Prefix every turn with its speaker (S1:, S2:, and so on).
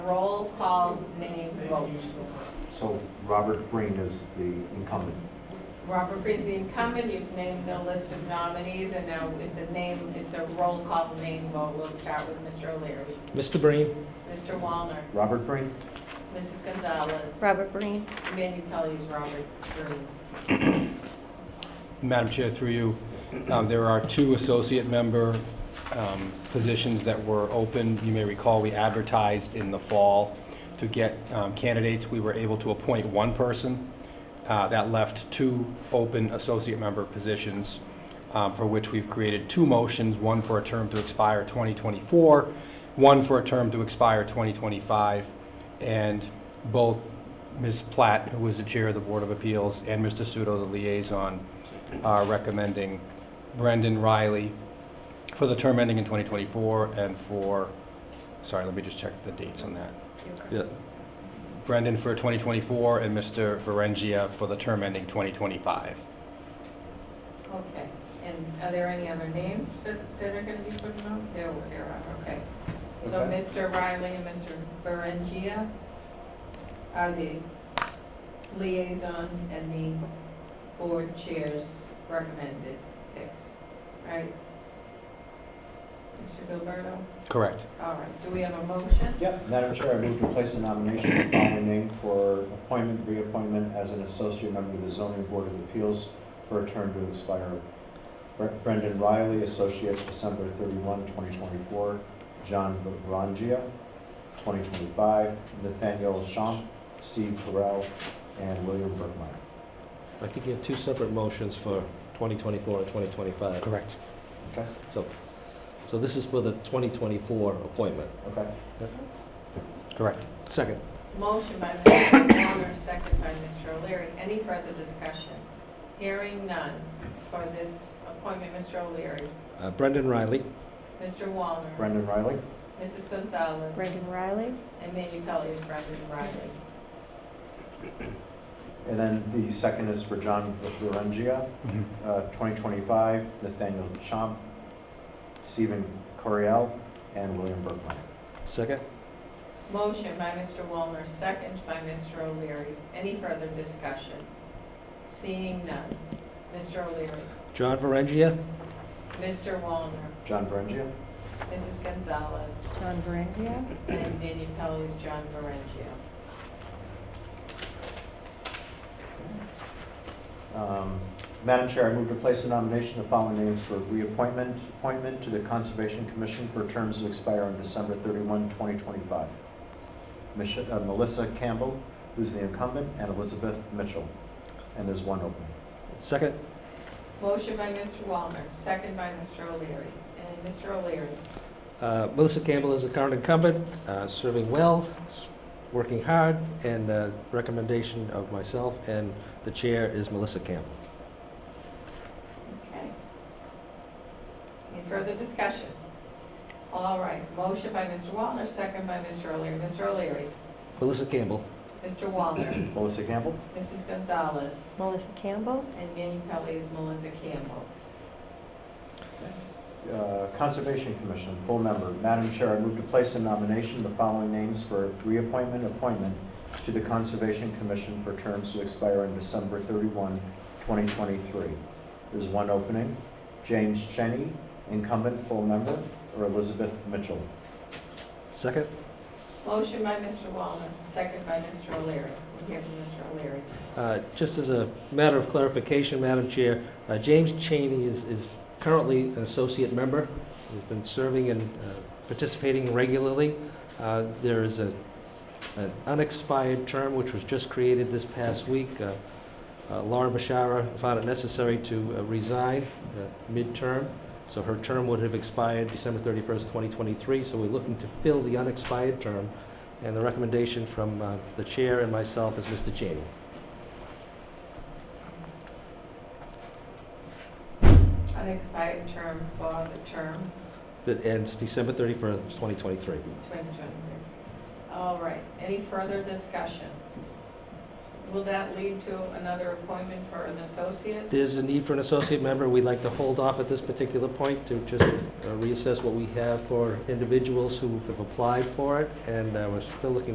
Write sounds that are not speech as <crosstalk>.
S1: Roll call name vote.
S2: So Robert Green is the incumbent.
S1: Robert Green's the incumbent, you've named the list of nominees, and now it's a name, it's a roll call name vote. We'll start with Mr. O'Leary,
S3: Mr. Breen,
S1: Mr. Wallner,
S2: Robert Green?
S1: Mrs. Gonzalez,
S4: Robert Breen.
S1: Manu Kelly's Robert Green.
S3: Madam Chair, through you, um, there are two associate member um, positions that were open. You may recall, we advertised in the fall to get um, candidates. We were able to appoint one person. Uh, That left two open associate member positions, um, for which we've created two motions, one for a term to expire 2024, one for a term to expire 2025, and both Ms. Platt, who was the chair of the Board of Appeals, and Mr. Studo, the liaison, are recommending Brendan Riley for the term ending in 2024 and for, sorry, let me just check the dates on that.
S5: Yeah,
S3: Brendan for 2024 and Mr. Varengia for the term ending 2025.
S1: Okay, and are there any other names that, that are gonna be put out? There, were- there are, okay. So
S2: Okay.
S1: Mr. Riley and Mr. Berengia are the liaison and the board chair's recommended picks, right? Mr. Gilberto,
S3: Correct.
S1: all right, do we have a motion?
S2: Yep, Madam Chair, I move to place a nomination of the following name for appointment, reappointment as an associate member of the zoning board of appeals for a term to expire. Bre- Brendan Riley, associate, December 31, 2024. John Rangia, 2025. Nathaniel Champ, Steve Carell, and William Burkmeyer.
S5: I think you have two separate motions for 2024 and 2025.
S3: Correct.
S5: So, so this is for the 2024 appointment.
S2: Okay?
S3: Correct.
S5: Second.
S1: Motion by Mr. Wallner, second by Mr. O'Leary, any further discussion? Hearing none for this appointment, Mr. O'Leary,
S5: Uh, Brendan Riley.
S1: Mr. Wallner,
S2: Brendan Riley?
S1: Mrs. Gonzalez.
S4: Brendan Riley.
S1: And Manu Pelley is Brendan Riley.
S2: And then the second is for John Rangia.
S3: Mm-hmm.
S2: Uh, 2025, Nathaniel Chomp, Stephen Coriel, and William Burkline.
S5: Second.
S1: Motion by Mr. Walner, second by Mr. O'Leary. Any further discussion? Seeing none. Mr. O'Leary,
S5: John Varengia.
S1: Mr. Walner,
S2: John Varengia?
S1: Mrs. Gonzalez,
S4: John Varengia.
S1: and Manu Pelley is John Varengio.
S2: Um, Madam Chair, I move to place the nomination of following names for reappointment, appointment to the Conservation Commission for terms to expire on December 31, 2025. Mich- uh, Melissa Campbell, who's the incumbent, and Elizabeth Mitchell. And there's one opening.
S5: Second.
S1: Motion by Mr. Walner, second by Mr. O'Leary. And Mr. O'Leary,
S5: Uh, Melissa Campbell is the current incumbent, uh, serving well, s- working hard, and uh, recommendation of myself, and the chair is Melissa Campbell.
S1: okay. Any further discussion? All right, motion by Mr. Walner, second by Mr. O'Leary. Mr. O'Leary,
S5: Melissa Campbell.
S1: Mr. Walner, <coughs>
S2: Melissa Campbell?
S1: Mrs. Gonzalez,
S4: Melissa Campbell.
S1: and Manu Pelley is Melissa Campbell.
S2: Uh, Conservation Commission, full member. Madam Chair, I move to place in nomination the following names for reappointment, appointment to the Conservation Commission for terms to expire on December 31, 2023. There's one opening. James Cheney, incumbent, full member, or Elizabeth Mitchell.
S5: Second.
S1: Motion by Mr. Wallner, second by Mr. O'Leary. We hear from Mr. O'Leary.
S5: Uh, Just as a matter of clarification, Madam Chair, uh, James Cheney is is currently an associate member. He's been serving and uh, participating regularly. Uh, There is a- an unexpired term which was just created this past week. Uh, uh, Laura Bashara found it necessary to uh, resign uh, midterm, so her term would have expired December 31st, 2023. So we're looking to fill the unexpired term, and the recommendation from uh, the chair and myself is Mr. Cheney.
S1: Unexpired term for the term
S5: that ends December 31st, 2023.
S1: 2023. All right, any further discussion? Will that lead to another appointment for an associate?
S5: There's a need for an associate member. We'd like to hold off at this particular point to just uh, reassess what we have for individuals who have applied for it, and uh, we're still looking